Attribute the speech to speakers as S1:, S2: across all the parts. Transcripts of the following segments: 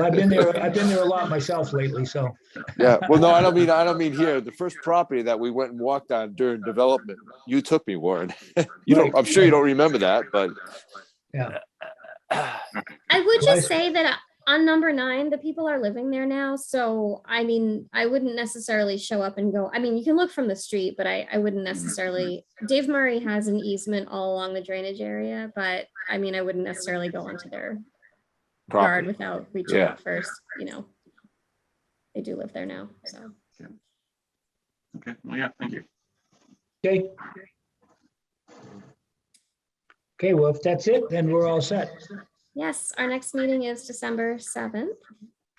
S1: I've been there, I've been there a lot myself lately, so.
S2: Yeah, well, no, I don't mean, I don't mean here. The first property that we went and walked on during development, you took me, Warren. You don't, I'm sure you don't remember that, but
S3: I
S1: Life-
S3: would just say that on number nine, the people are living there now. So, I mean, I wouldn't necessarily show up and go, I mean, you can look from the street, but I, I
S2: Mm-hmm.
S3: wouldn't necessarily, Dave Murray has an easement all along the drainage area, but I mean, I wouldn't necessarily go onto their yard
S2: property.
S3: without reaching
S2: Yeah.
S3: out first, you know. They do live there now, so.
S4: Okay, well, yeah, thank you.
S1: Okay. Okay, well, if that's it, then we're all set.
S3: Yes, our next meeting is December seventh.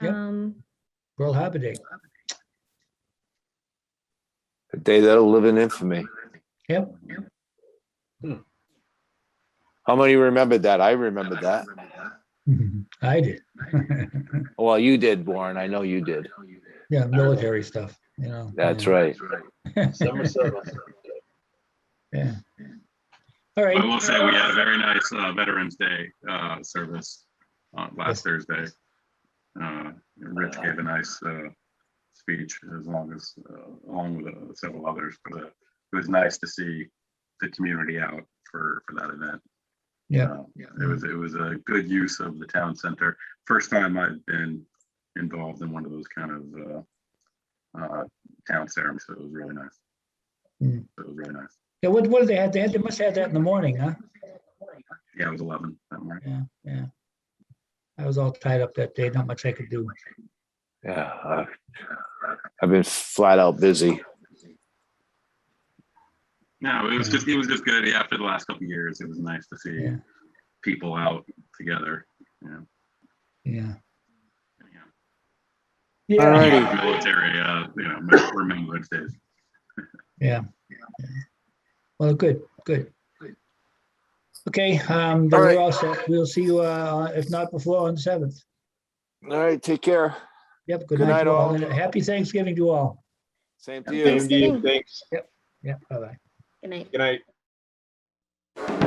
S1: Yep.
S3: Um,
S1: Pearl Harbor Day.
S2: A day that'll live in infamy.
S1: Yep.
S2: How many remembered that? I remembered that.
S1: I did.
S2: Well, you did, Warren. I know you did.
S1: Yeah, military stuff, you know.
S2: That's
S1: yeah.
S2: right.
S5: December seventh.
S1: Yeah. All
S4: I
S1: right,
S4: will say we had a very nice uh, Veterans Day uh, service uh, last Thursday. Uh, Rich gave a nice uh, speech as long as, uh, along with uh, several others, but uh, it was nice to see the community out for, for that event.
S1: Yeah.
S4: Uh, It was, it was a good use of the town center. First time I've been involved in one of those kind of uh, uh, town ceremonies, so it was really nice.
S1: Mm.
S4: It was really nice.
S1: yeah, what, what did they have? They had, they must have had that in the morning, huh?
S4: Yeah, it was 11, something like
S1: Yeah, yeah. I was all tied up that day, not much I could do.
S2: Yeah. I- I've been flat out busy.
S4: No, it was
S1: Yeah.
S4: just it was just good. Yeah, After the last couple of years, it was nice to see
S1: Yeah.
S4: people out together. You know,
S1: Yeah.
S4: Yeah.
S1: Yeah,
S2: Alrighty.
S4: military, uh, you know, mil- remembrance days.
S1: yeah. Well, good, good. Okay, um, but
S2: All right.
S1: we're all set. We'll see you, uh, if not before, on the seventh.
S2: All right, take care.
S1: Yep, good night
S2: night,
S1: to all.
S2: all.
S1: and Happy Thanksgiving to all.
S2: Same to you.
S3: Thanksgiving.
S5: Thanks.
S1: Yeah, bye-bye.
S3: Good night.
S5: Good night.